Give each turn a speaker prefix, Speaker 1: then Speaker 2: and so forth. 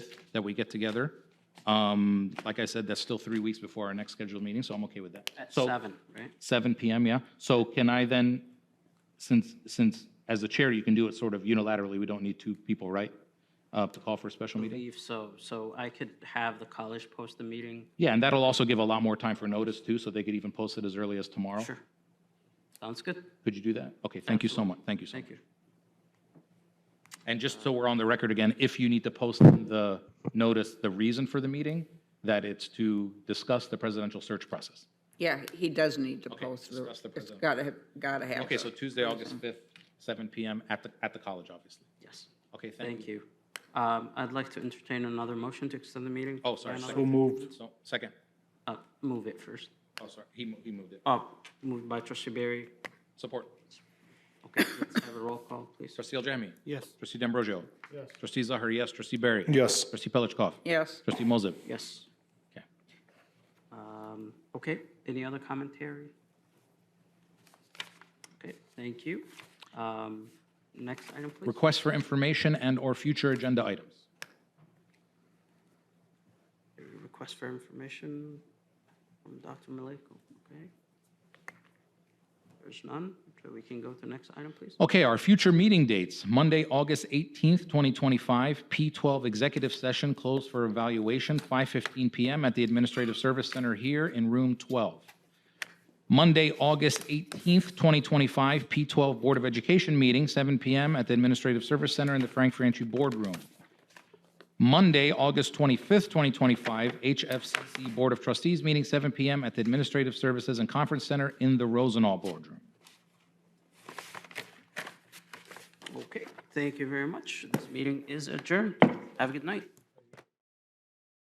Speaker 1: that we get together. Um, Like I said, that's still three weeks before our next scheduled meeting, so I'm okay with that.
Speaker 2: At
Speaker 1: So-
Speaker 2: seven, right?
Speaker 1: Seven PM, yeah. So can I then, since, since, as the chair, you can do it sort of unilaterally, we don't need two people, right? Uh, To call for a special meeting?
Speaker 2: Leave, so, so I could have the college post the meeting.
Speaker 1: Yeah, and that'll also give a lot more time for notice too, so they could even post it as early as tomorrow.
Speaker 2: Sure. Sounds good.
Speaker 1: Could you do that? Okay, thank you so much, thank you so much.
Speaker 2: Thank you.
Speaker 1: And just so we're on the record again, if you need to post in the notice, the reason for the meeting, that it's to discuss the presidential search process.
Speaker 3: Yeah, he does need to post the,
Speaker 1: discuss the
Speaker 3: it's
Speaker 1: present-
Speaker 3: gotta, have- gotta have.
Speaker 1: Okay, so
Speaker 3: it.
Speaker 1: Tuesday, August 5th, seven PM at the, at the college, obviously.
Speaker 2: Yes.
Speaker 1: Okay, thank
Speaker 2: Thank
Speaker 1: you.
Speaker 2: you. Um, I'd like to entertain another motion to extend the meeting.
Speaker 1: Oh,
Speaker 2: by
Speaker 1: sorry.
Speaker 2: another-
Speaker 1: second.
Speaker 4: moved.
Speaker 1: So, Second,
Speaker 2: Uh, move it first.
Speaker 1: oh, sorry, he mo- he moved it.
Speaker 2: Oh, moved by trustee Barry.
Speaker 1: Support.
Speaker 2: Okay, let's have a roll call, please.
Speaker 1: Trustee Aljamian.
Speaker 4: Yes.
Speaker 1: Trustee D'Ambrosio. Yes. Trustee Zahar, yes. Trustee Barry.
Speaker 4: Yes.
Speaker 1: Trustee Pelichkov.
Speaker 3: Yes,
Speaker 1: Trustee Moses.
Speaker 2: Yes.
Speaker 1: Okay.
Speaker 2: Um, Okay, any other commentary? Okay, thank you. Um, Next item, please.
Speaker 1: Requests for information and/or future agenda items.
Speaker 2: Request for information from Dr. Maliko, okay? There's none, so we can go to next item, please.
Speaker 1: Okay, our future meeting dates, Monday, August 18th, 2025, P12 Executive Session closed for evaluation, 5:15 PM at the Administrative Service Center here in Room 12. Monday, August 18th, 2025, P12 Board of Education Meeting, 7 PM at the Administrative Service Center in the Frank Franchi Boardroom. Monday, August 25th, 2025, HFCC Board of Trustees Meeting, 7 PM at the Administrative Services and Conference Center in the Rosenau Boardroom.
Speaker 2: Okay, thank you very much. This meeting is adjourned. Have a good night.